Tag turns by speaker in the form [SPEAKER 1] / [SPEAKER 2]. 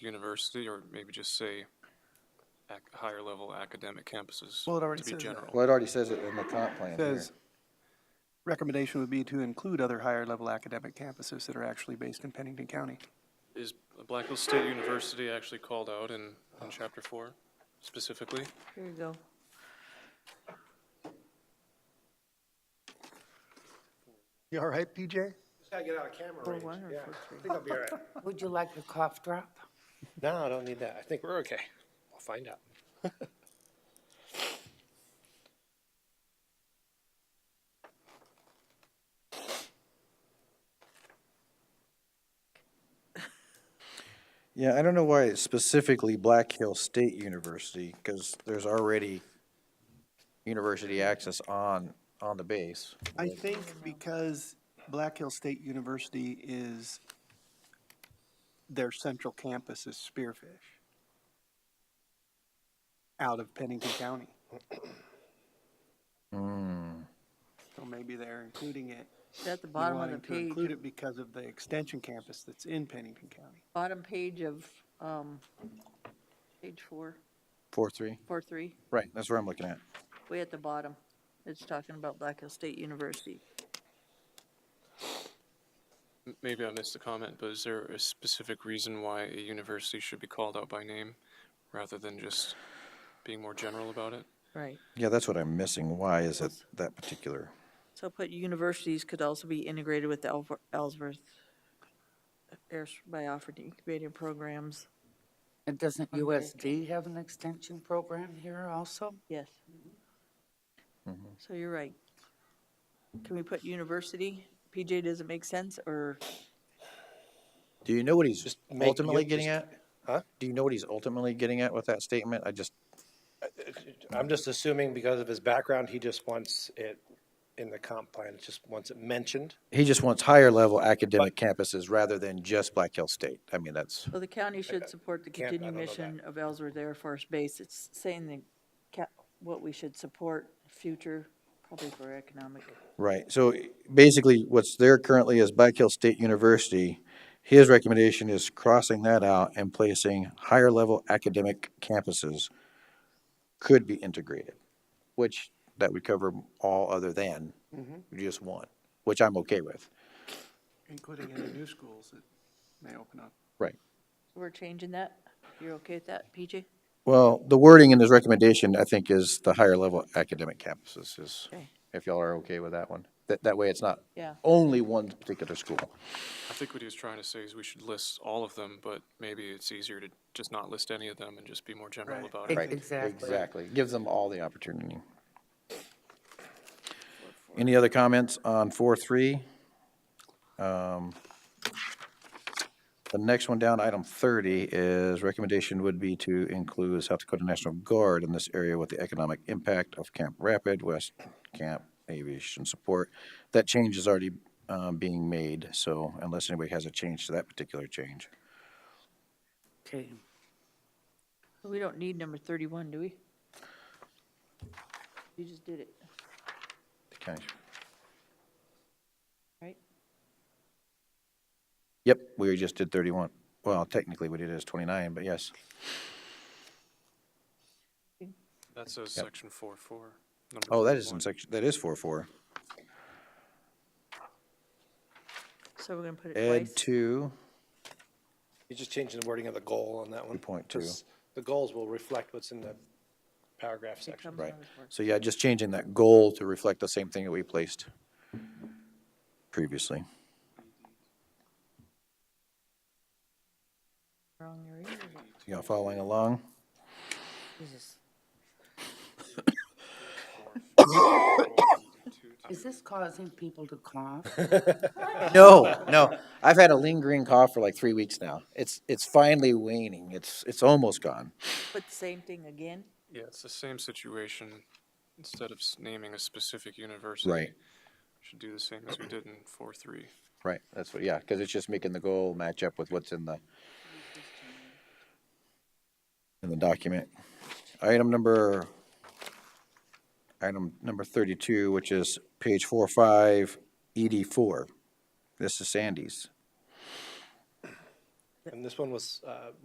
[SPEAKER 1] university, or maybe just say ac- higher level academic campuses.
[SPEAKER 2] Well, it already
[SPEAKER 1] To
[SPEAKER 2] says
[SPEAKER 1] be
[SPEAKER 2] that.
[SPEAKER 1] general.
[SPEAKER 3] Well, it already says it in the comp plan here.
[SPEAKER 2] Says, recommendation would be to include other higher level academic campuses that are actually based in Pennington County.
[SPEAKER 1] Is Black Hills State University actually called out in, in chapter four specifically?
[SPEAKER 4] Here you go.
[SPEAKER 5] You all right, PJ?
[SPEAKER 6] Gotta get out of camera
[SPEAKER 4] We're
[SPEAKER 6] range.
[SPEAKER 4] wired
[SPEAKER 6] Yeah,
[SPEAKER 4] for
[SPEAKER 6] I think I'll be all right.
[SPEAKER 7] Would you like a cough drop?
[SPEAKER 6] No, I don't need that. I think we're okay. We'll find out.
[SPEAKER 3] Yeah, I don't know why it's specifically Black Hill State University, because there's already university access on, on the base.
[SPEAKER 2] I think because Black Hill State University is, their central campus is Spearfish out of Pennington County. So maybe they're including it,
[SPEAKER 4] It's at the
[SPEAKER 2] they're
[SPEAKER 4] bottom of the
[SPEAKER 2] wanting to
[SPEAKER 4] page,
[SPEAKER 2] include it because of the extension campus that's in Pennington County.
[SPEAKER 4] bottom page of, um, page four,
[SPEAKER 3] Four, three?
[SPEAKER 4] four, three,
[SPEAKER 3] Right, that's where I'm looking at.
[SPEAKER 4] way at the bottom. It's talking about Black Hill State University.
[SPEAKER 1] M- Maybe I missed the comment, but is there a specific reason why a university should be called out by name rather than just being more general about it?
[SPEAKER 4] Right.
[SPEAKER 3] Yeah, that's what I'm missing. Why is it that particular?
[SPEAKER 4] So put universities could also be integrated with the Elver- Ellsworth airs by offering incubating programs.
[SPEAKER 7] And doesn't USD have an extension program here also?
[SPEAKER 4] Yes. So you're right. Can we put university? PJ, does it make sense or
[SPEAKER 3] Do you know what he's
[SPEAKER 6] Just make-
[SPEAKER 3] ultimately
[SPEAKER 6] you
[SPEAKER 3] getting
[SPEAKER 6] just-
[SPEAKER 3] at?
[SPEAKER 6] Huh?
[SPEAKER 3] Do you know what he's ultimately getting at with that statement? I just,
[SPEAKER 6] I'm just assuming because of his background, he just wants it in the comp plan, just wants it mentioned.
[SPEAKER 3] he just wants higher level academic campuses rather than just Black Hill State. I mean, that's,
[SPEAKER 4] Well, the county should support the
[SPEAKER 6] can't- I
[SPEAKER 4] continued
[SPEAKER 6] don't know that.
[SPEAKER 4] mission of Ellsworth Air Force Base. It's saying the, ca- what we should support, future, probably for economic.
[SPEAKER 3] right. So basically, what's there currently is Black Hill State University. His recommendation is crossing that out and placing higher level academic campuses could be integrated, which that would cover all other than
[SPEAKER 4] Mm-hmm.
[SPEAKER 3] just one, which I'm okay with.
[SPEAKER 2] Including any new schools that may open up.
[SPEAKER 3] Right.
[SPEAKER 4] We're changing that? You're okay with that, PJ?
[SPEAKER 3] Well, the wording in this recommendation, I think, is the higher level academic campuses is,
[SPEAKER 4] Okay.
[SPEAKER 3] if y'all are okay with that one. That, that way it's not
[SPEAKER 4] Yeah.
[SPEAKER 3] only one particular school.
[SPEAKER 1] I think what he was trying to say is we should list all of them, but maybe it's easier to just not list any of them and just be more general
[SPEAKER 2] Right.
[SPEAKER 1] about it.
[SPEAKER 7] Ex- Exactly.
[SPEAKER 3] Exactly. Gives them all the opportunity. Any other comments on four, three? Um, The next one down, item thirty, is recommendation would be to include South Dakota National Guard in this area with the economic impact of Camp Rapid, West Camp Aviation Support. That change is already, um, being made, so unless anybody has a change to that particular change.
[SPEAKER 7] Okay.
[SPEAKER 4] We don't need number thirty-one, do we? You just did it,
[SPEAKER 3] the county-
[SPEAKER 4] right?
[SPEAKER 3] Yep, we just did thirty-one. Well, technically, we did it as twenty-nine, but yes.
[SPEAKER 1] That says section four, four. number
[SPEAKER 3] Oh, that is
[SPEAKER 1] 41.
[SPEAKER 3] in section, that is four-four.
[SPEAKER 4] So we're gonna put it
[SPEAKER 3] Ed
[SPEAKER 4] twice.
[SPEAKER 3] two,
[SPEAKER 6] He's just changing the wording of the goal on that one.
[SPEAKER 3] 2.2.
[SPEAKER 6] 'Cause The goals will reflect what's in the paragraph
[SPEAKER 4] It
[SPEAKER 6] section.
[SPEAKER 4] comes
[SPEAKER 3] right.
[SPEAKER 4] out as work.
[SPEAKER 3] So yeah, just changing that goal to reflect the same thing that we placed previously.
[SPEAKER 4] Wrong, you're right.
[SPEAKER 3] Y'all following along?
[SPEAKER 7] Jesus. Is this causing people to cough?
[SPEAKER 3] No, no. I've had a lingering cough for like three weeks now. It's, it's finally waning. It's, it's almost gone.
[SPEAKER 4] Put the same thing again?
[SPEAKER 1] Yeah, it's the same situation. Instead of s- naming a specific university.
[SPEAKER 3] Right.
[SPEAKER 1] Should do the same as we did in four, three.
[SPEAKER 3] Right, that's what, yeah, because it's just making the goal match up with what's in the, in the document. Item number, item number thirty-two, which is page four, five, E ED four. This is Sandy's.
[SPEAKER 6] And this one was, uh,